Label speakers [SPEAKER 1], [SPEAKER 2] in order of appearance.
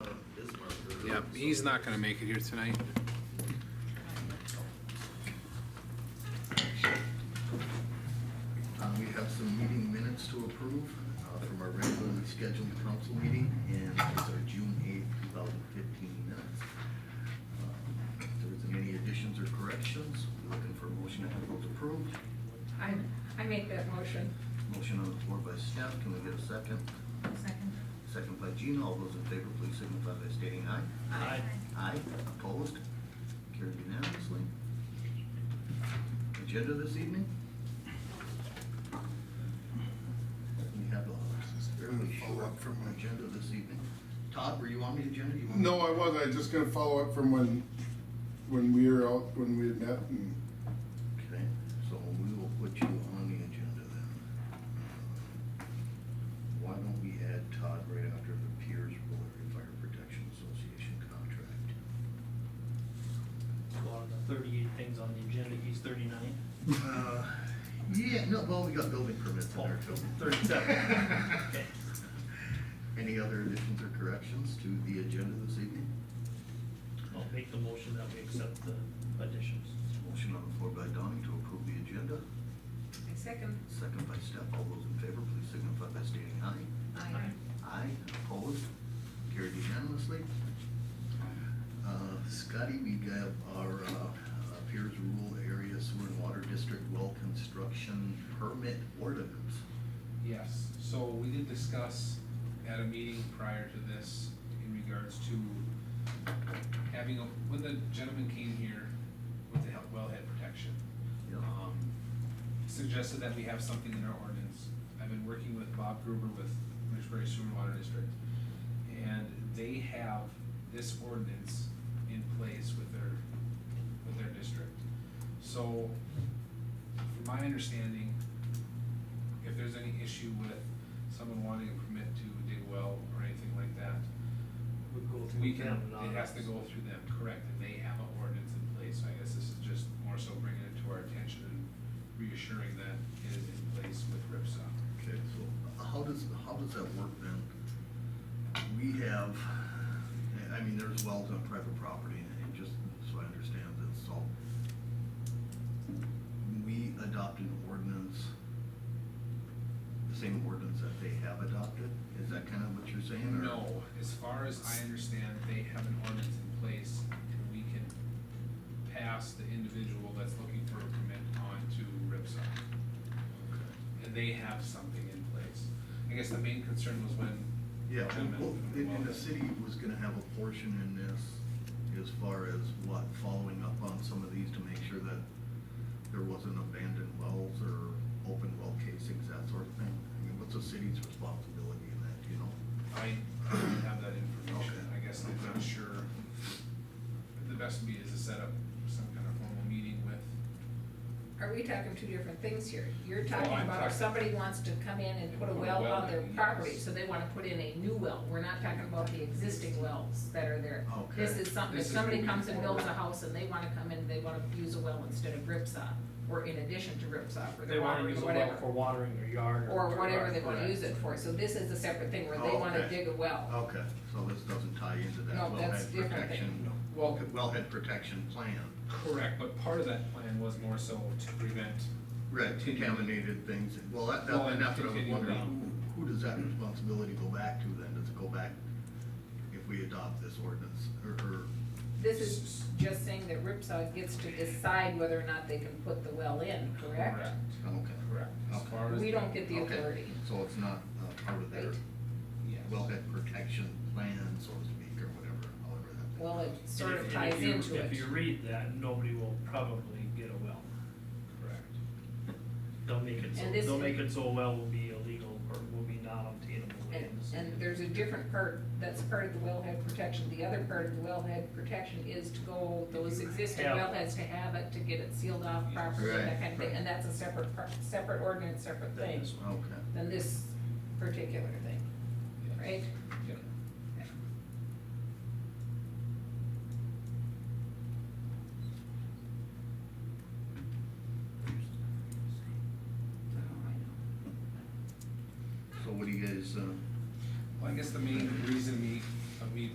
[SPEAKER 1] not, he's not gonna make it here tonight.
[SPEAKER 2] Uh, We have some meeting minutes to approve uh, from our regularly scheduled council meeting, and it's our June eighth, two thousand fifteen minutes. Uh, If there isn't any additions or corrections, we're looking for a motion to have those approved.
[SPEAKER 3] I, I make that motion.
[SPEAKER 2] Motion on the floor by Steph, can we get a second?
[SPEAKER 3] Second.
[SPEAKER 2] Second by Gina, all those in favor, please signify by stating aye.
[SPEAKER 3] Aye.
[SPEAKER 2] Aye, opposed, carried unanimously. Agenda this evening? We have a fairly short from our agenda this evening. Todd, were you on the agenda? You want-
[SPEAKER 4] No, I wasn't. I was just gonna follow up from when, when we were out, when we had met and
[SPEAKER 2] Okay, so we will put you on the agenda then. Why don't we add Todd right after the Piers Rural Fire Protection Association contract?
[SPEAKER 5] Well, the thirty-eight things on the agenda, he's thirty-nine.
[SPEAKER 2] Uh, Yeah, no, well, we got building permits in our
[SPEAKER 5] Oh,
[SPEAKER 2] building.
[SPEAKER 5] 37. Okay.
[SPEAKER 2] Any other additions or corrections to the agenda this evening?
[SPEAKER 5] I'll make the motion that we accept the additions.
[SPEAKER 2] Motion on the floor by Donnie to approve the agenda,
[SPEAKER 3] I second.
[SPEAKER 2] second by Steph. All those in favor, please signify by stating aye.
[SPEAKER 3] Aye.
[SPEAKER 2] Aye, and opposed, carried unanimously. Uh, Scotty, we got our uh, uh, Piers Rural Area Sewer and Water District Well Construction Permit Ordinance.
[SPEAKER 1] Yes, so we did discuss at a meeting prior to this in regards to having, a when the gentleman came here with the health- wellhead protection,
[SPEAKER 2] Yeah.
[SPEAKER 1] um, suggested that we have something in our ordinance. I've been working with Bob Gruber with Mitchbury Sewer and Water District, and they have this ordinance in place with their, with their district. So, from my understanding, if there's any issue with someone wanting a permit to dig well or anything like that,
[SPEAKER 5] Would go through
[SPEAKER 1] we can,
[SPEAKER 5] them, not
[SPEAKER 1] it has to
[SPEAKER 5] us.
[SPEAKER 1] go through them, correct, and they have an ordinance in place, so I guess this is just more so bringing it to our attention and reassuring that it is in place with RIPSA.
[SPEAKER 2] Okay, so how does, how does that work then? We have, I mean, there's wells on private property, and just so I understand this, so we adopt an ordinance, the same ordinance that they have adopted? Is that kind of what you're saying, or?
[SPEAKER 1] No, as far as I understand, they have an ordinance in place, and we can pass the individual that's looking for a permit on to RIPSA. And they have something in place. I guess the main concern was when.
[SPEAKER 2] Yeah,
[SPEAKER 1] Gentlemen,
[SPEAKER 2] well, and, and the
[SPEAKER 1] well,
[SPEAKER 2] city was gonna have a portion in this as far as what, following up on some of these to make sure that there wasn't abandoned wells or open well casings, that sort of thing. I mean, what's the city's responsibility in that, do you know?
[SPEAKER 1] I don't have that information,
[SPEAKER 2] Okay.
[SPEAKER 1] I guess I'm not sure. The best would be is to set up some kind of formal meeting with,
[SPEAKER 3] Are we talking two different things here? You're
[SPEAKER 1] Oh,
[SPEAKER 3] talking
[SPEAKER 1] I'm
[SPEAKER 3] about if
[SPEAKER 1] talking-
[SPEAKER 3] somebody wants to come in and put a well on their
[SPEAKER 1] in,
[SPEAKER 3] property,
[SPEAKER 1] yes.
[SPEAKER 3] so they wanna put in a new well. We're not talking about the existing wells that are there.
[SPEAKER 2] Okay.
[SPEAKER 3] This is something, if
[SPEAKER 1] This is
[SPEAKER 3] somebody
[SPEAKER 1] moving
[SPEAKER 3] comes and builds a
[SPEAKER 1] forward.
[SPEAKER 3] house and they wanna come in, they wanna use a well instead of ripsaw, or in addition to ripsaw for
[SPEAKER 5] They
[SPEAKER 3] their
[SPEAKER 5] wanna
[SPEAKER 3] water or
[SPEAKER 5] use a
[SPEAKER 3] whatever.
[SPEAKER 5] well for watering their yard.
[SPEAKER 3] Or whatever they wanna
[SPEAKER 5] Correct.
[SPEAKER 3] use it for, so this is a separate thing where they
[SPEAKER 2] Oh,
[SPEAKER 3] wanna
[SPEAKER 2] okay.
[SPEAKER 3] dig a well.
[SPEAKER 2] Okay, so this doesn't tie into that
[SPEAKER 3] No, that's
[SPEAKER 2] wellhead
[SPEAKER 3] different
[SPEAKER 2] protection,
[SPEAKER 1] well,
[SPEAKER 2] wellhead protection plan.
[SPEAKER 1] correct, but part of that plan was more so to prevent,
[SPEAKER 2] Right, contaminated things, well, that, that, and that's what I was
[SPEAKER 1] Well, and
[SPEAKER 2] wondering, who, who does that responsibility go back to then? Does it go back if we adopt this ordinance, or, or
[SPEAKER 3] This is just saying that Ripsaw gets to decide whether or not they can put the well in, correct?
[SPEAKER 1] correct,
[SPEAKER 2] Okay.
[SPEAKER 1] correct, as far as.
[SPEAKER 3] We don't get the
[SPEAKER 2] Okay,
[SPEAKER 3] authority.
[SPEAKER 2] So it's not uh, part of their
[SPEAKER 3] Right.
[SPEAKER 1] Yes.
[SPEAKER 2] wellhead protection plan, so to speak, or whatever, however that.
[SPEAKER 3] Well, it sort
[SPEAKER 5] And
[SPEAKER 3] of
[SPEAKER 5] if-
[SPEAKER 3] ties
[SPEAKER 5] and if you-
[SPEAKER 3] into it.
[SPEAKER 5] If you read that, nobody will probably get a well.
[SPEAKER 1] Correct.
[SPEAKER 5] They'll make it so,
[SPEAKER 3] And this-
[SPEAKER 5] they'll make it so a well will be illegal or will be not obtainable.
[SPEAKER 3] And,
[SPEAKER 5] in the city.
[SPEAKER 3] and there's a different part, that's part of the wellhead protection. The other part of the wellhead protection is to go, those existing
[SPEAKER 5] Yeah.
[SPEAKER 3] wellheads to have it, to get it sealed off properly, and that
[SPEAKER 2] Right,
[SPEAKER 3] kind of thing.
[SPEAKER 2] right.
[SPEAKER 3] And that's a separate, part- separate ordinance, separate
[SPEAKER 5] Then
[SPEAKER 3] thing
[SPEAKER 5] this one.
[SPEAKER 2] Okay.
[SPEAKER 3] than this particular thing,
[SPEAKER 1] Yes.
[SPEAKER 3] right?
[SPEAKER 1] Yep.
[SPEAKER 2] uh,
[SPEAKER 1] uh,